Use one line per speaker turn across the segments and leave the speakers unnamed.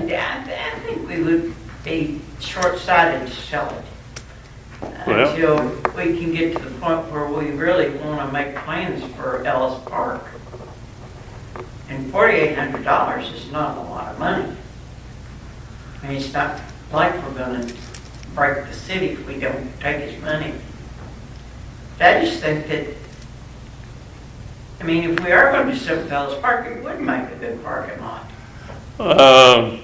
I I think we would be short-sighted to sell it
Well-
until we can get to the point where we really want to make plans for Ellis Park. And forty-eight hundred dollars is not a lot of money. I mean, it's not like we're gonna break the city if we don't take his money. But I just think that, I mean, if we are gonna do something else, Park, it would make a good parking lot.
Um,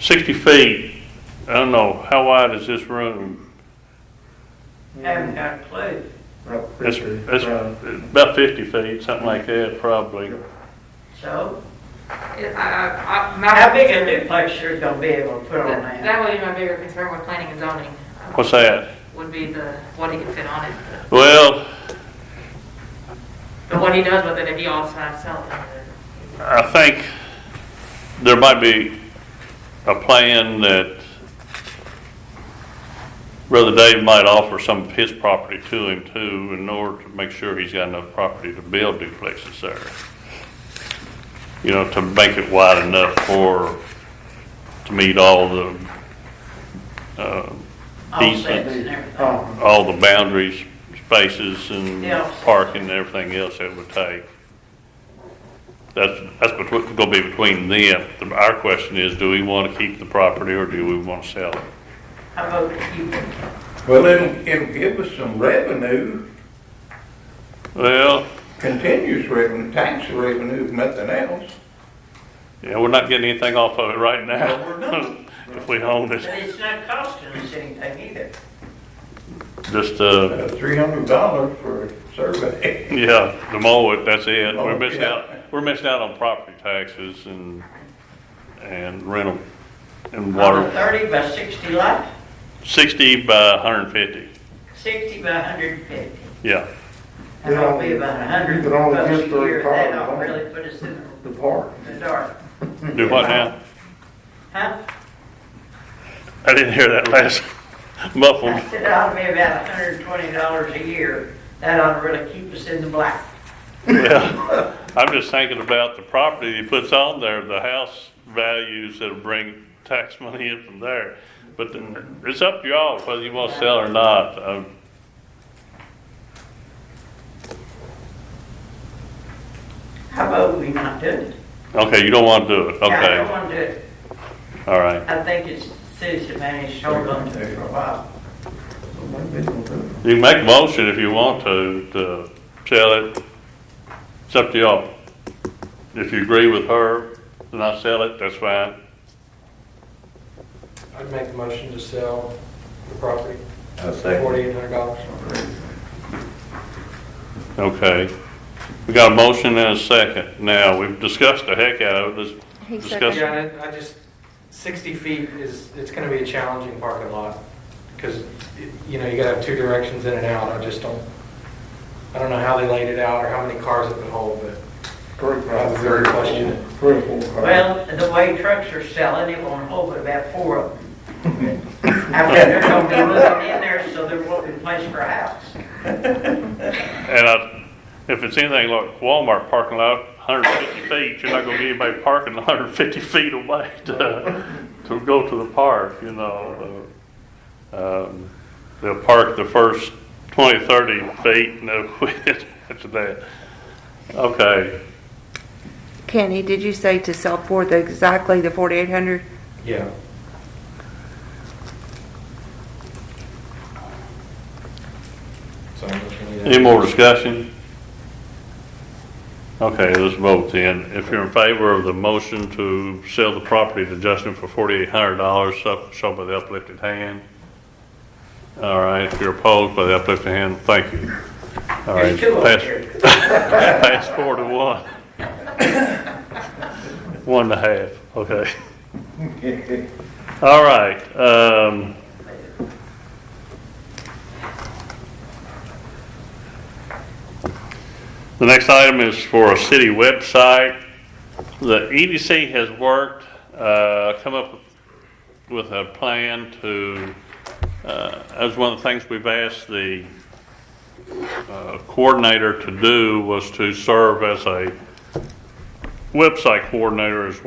60 feet, I don't know, how wide is this room?
I haven't got a clue.
About
That's,
fifty,
that's
right.
about 50 feet, something like that, probably.
So,
I- I- I- my-
how big a duplex you're gonna be able to put on
That
that?
that would be my bigger concern with planning and zoning, um,
What's that?
would be the, what he can fit on it.
Well,
But what he does with it, if he also has selling, then
I think there might be a plan that Brother Dave might offer some of his property to him too, in order to make sure he's got enough property to build duplexes there. You know, to make it wide enough for, to meet all the, uh,
Offsets
decent,
and everything.
Um,
all the boundaries, spaces and
Yeah.
parking and everything else it would take. That's, that's between, gonna be between them. The- Our question is, do we wanna keep the property or do we wanna sell it?
How about you?
Well, it'll, it'll give us some revenue,
Well,
continuous revenue, tax revenue, if nothing else.
yeah, we're not getting anything off of it right
No, we're
now.
not.
If we own
But
it,
it's not costing us anything either.
just, uh,
Three hundred dollars for a survey.
yeah, the mow it, that's it.
Mow
We're
it,
missing
Oh, yeah.
out, we're missing out on property taxes and, and rental and
On a
Uh-huh.
water.
thirty by sixty lot,
Sixty by hundred and fifty,
sixty by hundred and fifty.
yeah.
That'll be about a hundred
You could only
bucks a
get three
year, that'll
cars.
really put us in
The park.
the dark,
Do what now?
huh?
I didn't hear that last muffled.
I said that'll be about hundred and twenty dollars a year, that ought to really keep us in the black.
Yeah. I'm just thinking about the property he puts on there, the house values that'll bring tax money in from there. But the- it's up to y'all whether you want to sell or not. Um,
How about we not do it?
Okay, you don't want to do it,
Yeah, I don't
okay,
wanna do it,
all right.
I think it's, the cities have managed to hold on to it for a while.
You can make a motion if you want to, to sell it. It's up to y'all. If you agree with her, then I sell it, that's fine.
I'd make a motion to sell the property
I
for
say,
forty-eight hundred dollars.
Okay. We got a motion and a second. Now, we've discussed the heck out of it. Let's discuss
Yeah, and I just, sixty feet is, it's gonna be a challenging parking lot, because, you know, you gotta have two directions in and out, I just don't, I don't know how they laid it out, or how many cars it would hold, but
Three,
I
four,
would very question it.
three, four, five.
Well, the way trucks are selling, it won't hold but about four of them. I bet they're gonna be moving in there, so there won't be place for a house.
And I, if it's anything like Walmart parking lot, 150 feet, you're not gonna get anybody parking 150 feet away to, to go to the park, you know. uh, um, They'll park the first 20, 30 feet and they'll quit after that. Okay,
Kenny, did you say to sell for the, exactly the 4,800?
Yeah. So I'm looking at.
any more discussion? Okay, let's vote then. If you're in favor of the motion to sell the property to Justin for $4,800, so- show by the uplifted hand. All right, if you're opposed by the uplifted hand, thank you. All right,
There's two over
pass-
here.
Pass four to one. One and a half, okay. All right, um. The next item is for a city website. The EDC has worked, uh, come up with a plan to, uh, as one of the things we've asked the, uh, coordinator to do was to serve as a website coordinator as